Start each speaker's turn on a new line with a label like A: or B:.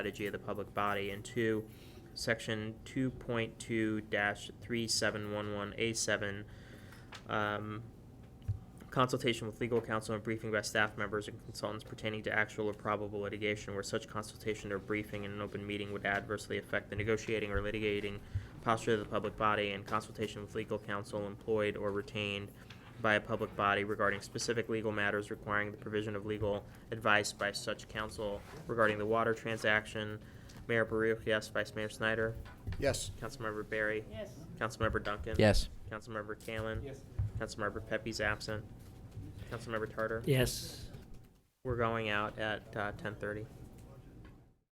A: strategy of the public body, and two, section two point two three seven one one A seven, um, consultation with legal counsel and briefing by staff members and consultants pertaining to actual or probable litigation where such consultation or briefing in an open meeting would adversely affect the negotiating or litigating posture of the public body and consultation with legal counsel employed or retained by a public body regarding specific legal matters requiring the provision of legal advice by such counsel regarding the water transaction. Mayor Baruch, yes. Vice Mayor Snyder?
B: Yes.
A: Councilmember Barry?
C: Yes.
A: Councilmember Duncan?
D: Yes.
A: Councilmember Kalin?
C: Yes.
A: Councilmember Pepe's absent. Councilmember Tartar?
D: Yes.
A: We're going out at uh, ten thirty.